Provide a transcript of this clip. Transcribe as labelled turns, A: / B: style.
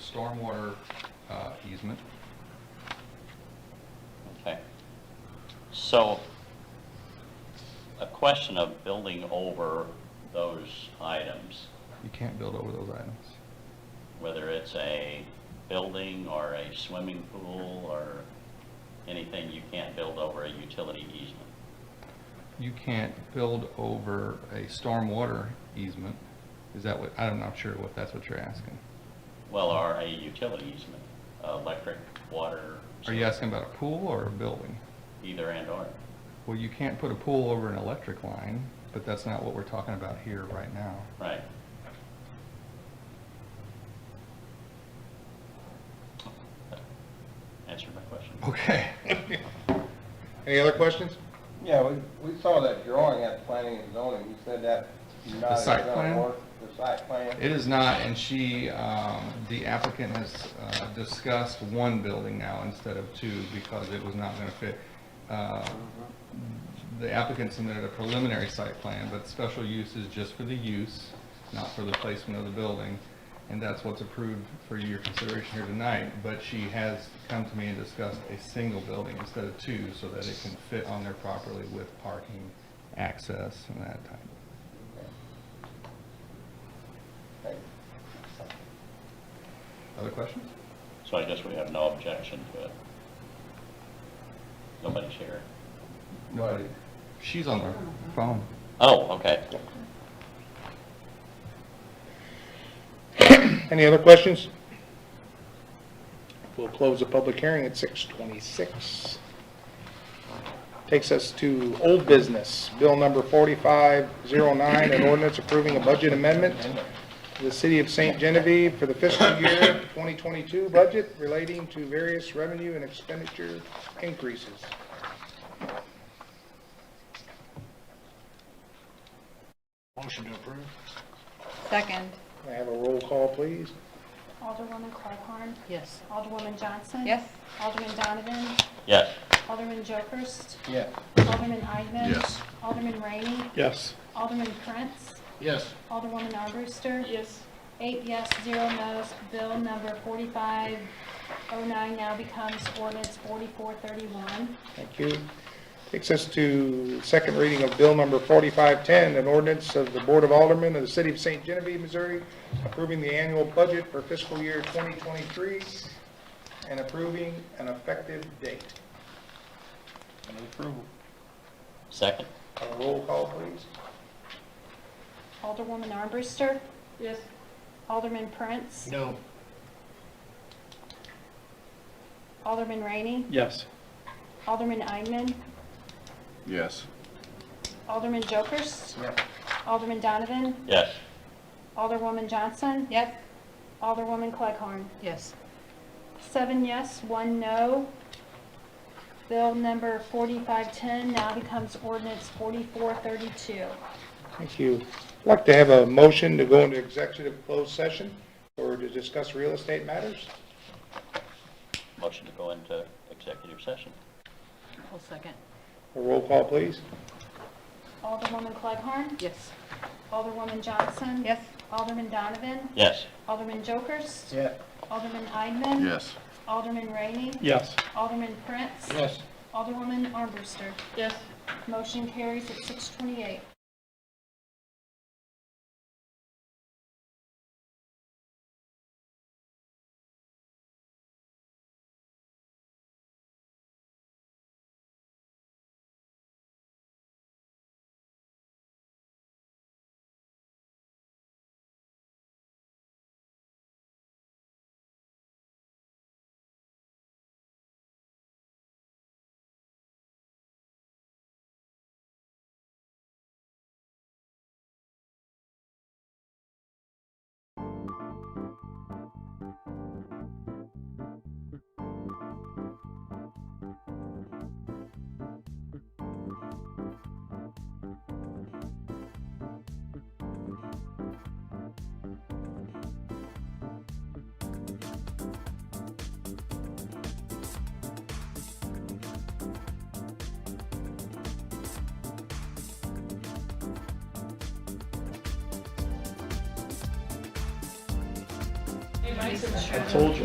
A: stormwater uh, easement.
B: Okay. So, a question of building over those items,
A: You can't build over those items.
B: whether it's a building or a swimming pool or anything, you can't build over a utility easement.
A: You can't build over a stormwater easement. Is that what, I'm not sure what, that's what you're asking.
B: Well, or a utility easement, electric, water.
A: Are you asking about a pool or a building?
B: Either and or.
A: Well, you can't put a pool over an electric line, but that's not what we're talking about here right now.
B: Right. Answered my question.
A: Okay.
C: Any other questions?
D: Yeah, we, we saw that drawing at planning and zoning, you said that. not
A: The site
D: it's not
A: plan?
D: worth- The site plan,
A: It is not, and she, um, the applicant has uh, discussed one building now instead of two because it was not going to fit. Uh, The applicant submitted a preliminary site plan, but special use is just for the use, not for the placement of the building. And that's what's approved for your consideration here tonight. But she has come to me and discussed a single building instead of two so that it can fit on there properly with parking, access, and that type.
D: Okay.
A: Other questions?
B: So I guess we have no objection to it. Nobody's here.
A: Nobody. She's on her phone.
B: Oh, okay.
C: Any other questions? We'll close the public hearing at 6:26. Takes us to old business, bill number 4509, an ordinance approving a budget amendment to the city of St. Genevieve for the fiscal year 2022 budget relating to various revenue and expenditure increases.
E: Motion to approve?
F: Second.
C: May I have a roll call, please?
G: Alderwoman Claiborne.
F: Yes.
G: Alderwoman Johnson.
F: Yes.
G: Alderman Donovan.
B: Yes.
G: Alderman Jokers.
D: Yeah,
G: Alderman Eidman.
E: Yes.
G: Alderman Rainey.
C: Yes.
G: Alderman Prince.
E: Yes.
G: Alderwoman Armbruster. Yes. Eight yes, zero no's. Bill number 4509 now becomes ordinance 4431.
C: Thank you. Takes us to second reading of Bill Number 4510, an ordinance of the Board of Aldermen of the City of St. Genevieve, Missouri, approving the annual budget for fiscal year 2023 and approving an effective date.
B: Second?
C: A roll call, please.
G: Alderwoman Armbruster. Yes. Alderman Prince.
E: No.
G: Alderman Rainey.
E: Yes.
G: Alderman Eidman.
E: Yes.
G: Alderman Jokers.
D: yeah,
G: Alderman Donovan.
B: Yes.
G: Alderwoman Johnson.
F: Yes.
G: Alderwoman Clegg-Horn.
F: Yes.
G: Seven yes, one no. Bill number 4510 now becomes ordinance 4432.
C: Thank you. I'd like to have a motion to go into executive closed session or to discuss real estate matters.
B: Motion to go into executive session?
F: I'll second.
C: A roll call, please.
G: Alderwoman Clegg-Horn.
F: Yes.
G: Alderwoman Johnson.
F: Yes.
G: Alderman Donovan.
B: Yes.
G: Alderman Jokers.
D: yeah.
G: Alderman Eidman.
E: Yes.
G: Alderman Rainey.
C: Yes.
G: Alderman Prince.
E: Yes.
G: Alderwoman Armbruster.
F: Yes.
G: Motion carries at 628.
F: License.
C: I told you.